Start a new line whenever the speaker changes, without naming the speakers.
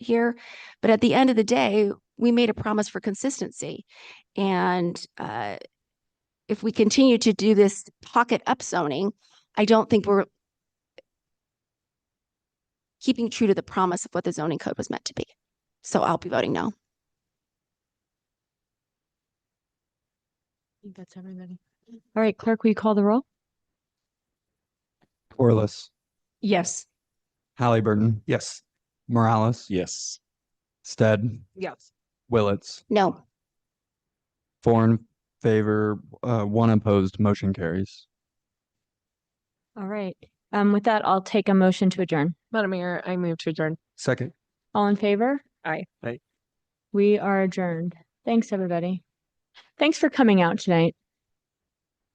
here. But at the end of the day, we made a promise for consistency. And uh, if we continue to do this pocket upzoning, I don't think we're keeping true to the promise of what the zoning code was meant to be. So I'll be voting no.
I think that's everybody. All right, clerk, will you call the roll?
Corliss,
Yes.
Halliburton, yes. Morales,
Yes.
Stead,
Yes.
Willetts,
No,
four in favor, uh, one opposed, motion carries.
All right. Um, with that, I'll take a motion to adjourn.
Madam Mayor, I move to adjourn.
Second.
All in favor?
Aye.
Aye.
We are adjourned. Thanks, everybody. Thanks for coming out tonight.